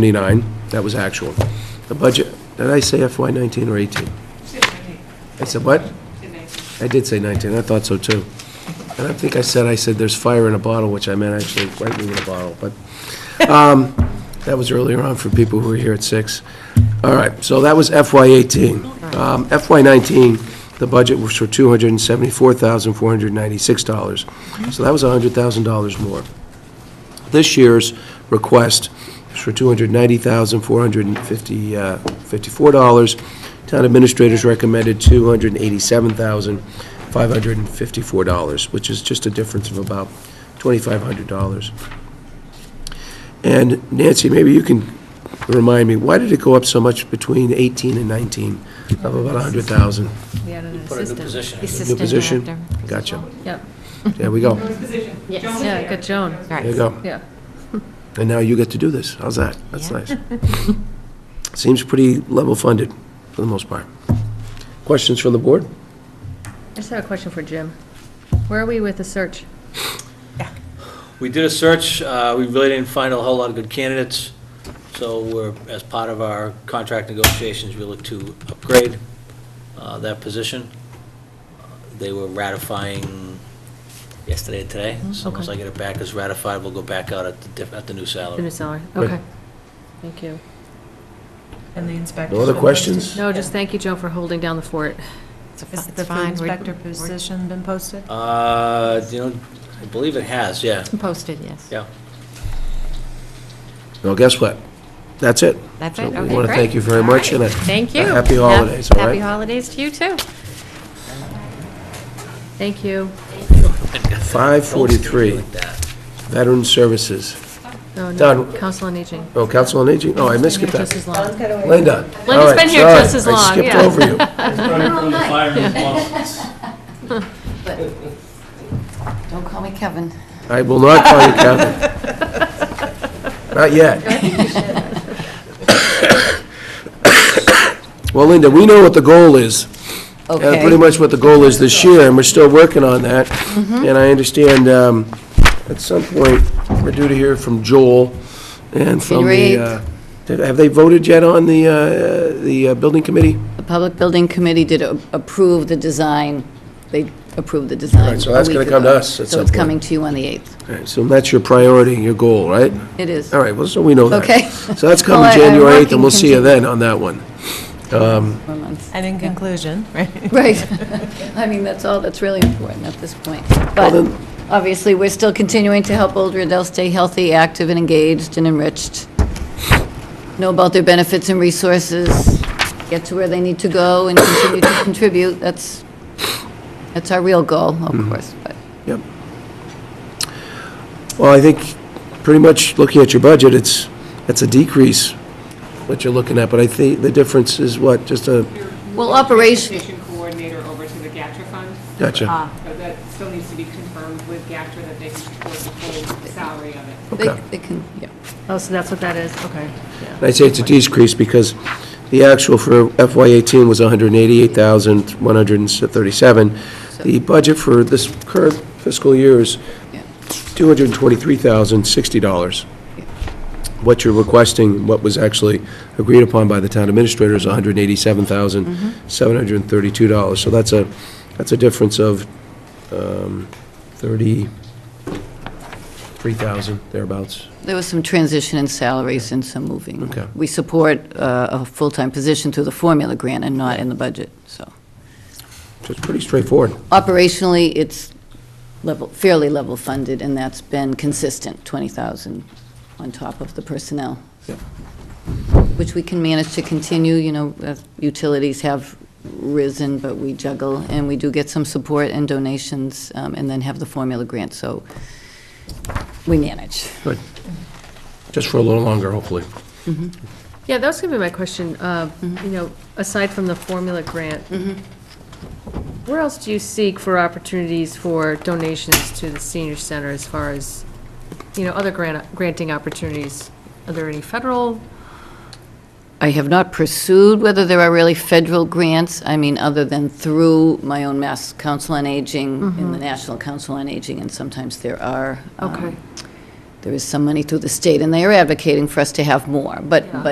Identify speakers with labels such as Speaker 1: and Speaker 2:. Speaker 1: 79, that was actual. The budget, did I say FY 19 or 18? I said what? I did say 19, I thought so too. And I think I said, I said there's fire in a bottle, which I meant actually lightning in a bottle, but um, that was earlier on for people who were here at 6. All right, so that was FY 18. Um, FY 19, the budget was for $274,496, so that was $100,000 more. This year's request is for $290,454. uh, Town administrators recommended $287,554, which is just a difference of about $2,500. And Nancy, maybe you can remind me, why did it go up so much between 18 and 19, of about 100,000?
Speaker 2: We had an
Speaker 3: Put a new
Speaker 2: assistant.
Speaker 3: position. in.
Speaker 1: New position? Gotcha.
Speaker 2: Yep,
Speaker 1: There we go.
Speaker 4: position.
Speaker 5: Yes.
Speaker 4: Joan was
Speaker 2: yeah,
Speaker 4: there.
Speaker 2: good Joan,
Speaker 5: Right.
Speaker 1: There you go.
Speaker 2: yeah.
Speaker 1: And now you get to do this. How's that? That's
Speaker 5: Yeah.
Speaker 1: nice. Seems pretty level funded, for the most part. Questions from the board?
Speaker 2: I just have a question for Jim. Where are we with the search?
Speaker 3: We did a search, uh, we really didn't find a whole lot of good candidates, so we're, as part of our contract negotiations, we look to upgrade uh, that position. They were ratifying yesterday and today, so once
Speaker 2: Mm-hmm,
Speaker 3: I
Speaker 2: okay.
Speaker 3: get it back as ratified, we'll go back out at the, diff- at the new
Speaker 2: The
Speaker 3: salary.
Speaker 2: new salary,
Speaker 1: Right.
Speaker 2: okay. Thank you.
Speaker 4: And the inspector.
Speaker 1: No other questions?
Speaker 2: No, just thank you, Joan, for holding down the fort.
Speaker 5: It's a fi-
Speaker 4: Has
Speaker 5: it's
Speaker 4: the food
Speaker 5: fine. We're-
Speaker 4: inspector
Speaker 5: we're-
Speaker 4: position been posted?
Speaker 3: Uh, you know, I believe it has, yeah,
Speaker 5: It's Posted, yes.
Speaker 3: yeah.
Speaker 1: Well, guess what? That's it.
Speaker 5: That's
Speaker 1: So
Speaker 5: it, okay,
Speaker 1: We want to
Speaker 5: great.
Speaker 1: thank you very
Speaker 5: All
Speaker 1: much,
Speaker 5: right.
Speaker 1: and a...
Speaker 5: Thank
Speaker 1: a
Speaker 5: you.
Speaker 1: Happy
Speaker 5: Hap-
Speaker 1: holidays, all
Speaker 5: Happy
Speaker 1: right?
Speaker 5: holidays to you, too.
Speaker 2: Thank you.
Speaker 1: 5:43.
Speaker 3: Like that.
Speaker 1: Veteran Services.
Speaker 2: Oh, no,
Speaker 1: Done.
Speaker 2: Council on Aging.
Speaker 1: Oh, Council on Aging? Oh, I missed
Speaker 2: Been
Speaker 1: it.
Speaker 2: here just as long.
Speaker 1: Linda. all
Speaker 2: Linda's
Speaker 1: right,
Speaker 2: been here just
Speaker 1: sorry.
Speaker 2: as long, yeah.
Speaker 1: I skipped over you.
Speaker 6: Don't call me Kevin.
Speaker 1: I will not call you Kevin. Not yet. Well, Linda, we know what the goal is. uh, Pretty much what the goal is this year, and we're still working on that.
Speaker 6: Mm-hmm.
Speaker 1: And I understand, um, at some point, we're due to hear from Joel and from
Speaker 6: January
Speaker 1: the, uh, did- have they voted yet on the, uh, the uh, building committee?
Speaker 6: The Public Building Committee did a- approve the design, they approved the design.
Speaker 1: Right, so
Speaker 6: a
Speaker 1: that's gonna
Speaker 6: week
Speaker 1: come to
Speaker 6: ago.
Speaker 1: us at
Speaker 6: So
Speaker 1: some
Speaker 6: it's
Speaker 1: point.
Speaker 6: coming to you on the 8th.
Speaker 1: All right, So that's your priority, your goal, right?
Speaker 6: It is.
Speaker 1: All right, well, so we know that.
Speaker 6: Okay.
Speaker 1: So that's
Speaker 6: Well,
Speaker 1: coming
Speaker 6: I- I'm
Speaker 1: January 8th, and
Speaker 6: working
Speaker 1: we'll see you then on that one. Um,
Speaker 6: Four months.
Speaker 4: And in conclusion, right?
Speaker 6: Right. I mean, that's all that's really important at this point. But
Speaker 1: then-
Speaker 6: obviously, we're still continuing to help older adults stay healthy, active, and engaged and enriched. Know about their benefits and resources, get to where they need to go and continue to contribute. That's, that's our real goal,
Speaker 1: Mm-hmm.
Speaker 6: of course, but.
Speaker 1: Yep. Well, I think, pretty much, looking at your budget, it's, it's a decrease, what you're looking at, but I think the difference is what, just a,
Speaker 6: Well, operation- Ah.
Speaker 4: Transportation coordinator over to the GATRA fund,
Speaker 1: gotcha.
Speaker 4: but that still needs to be confirmed with GATRA that they can support the full salary of it.
Speaker 6: They
Speaker 1: Okay.
Speaker 6: they can, yeah.
Speaker 2: Oh, so that's what that is, okay.
Speaker 1: And I'd say it's a decrease because the actual for FY eighteen was hundred and eighty-eight thousand, one hundred and thirty-seven. The budget for this current fiscal year is
Speaker 6: Yeah.
Speaker 1: two hundred and twenty-three thousand, sixty dollars. What you're requesting, what was actually agreed upon by the town administrator is hundred and eighty-seven thousand, seven hundred and thirty-two dollars. So that's a, that's a difference of, um, thirty-three thousand, thereabouts.
Speaker 6: There was some transition in salaries and some moving.
Speaker 1: Okay.
Speaker 6: We support uh, a full-time position through the formula grant and not in the budget, so.
Speaker 1: So it's pretty straightforward.
Speaker 6: Operationally, it's level, fairly level funded, and that's been consistent, 20,000 on top of the personnel.
Speaker 1: Yep.
Speaker 6: Which we can manage to continue, you know, uh, utilities have risen, but we juggle, and we do get some support and donations, um, and then have the formula grant, so we manage.
Speaker 1: Good. Just for a little longer, hopefully.
Speaker 2: Yeah, that was gonna be my question, uh, you know, aside from the formula grant, where else do you seek for opportunities for donations to the senior center as far as, you know, other grant, granting opportunities? Are there any federal?
Speaker 6: I have not pursued whether there are really federal grants, I mean, other than through my own Mass Council on Aging and the National Council on Aging, and sometimes there are. um,
Speaker 2: Mm-hmm. Okay.
Speaker 6: there is some money through the state, and they are advocating for us to have more, but,
Speaker 2: Yeah.
Speaker 6: but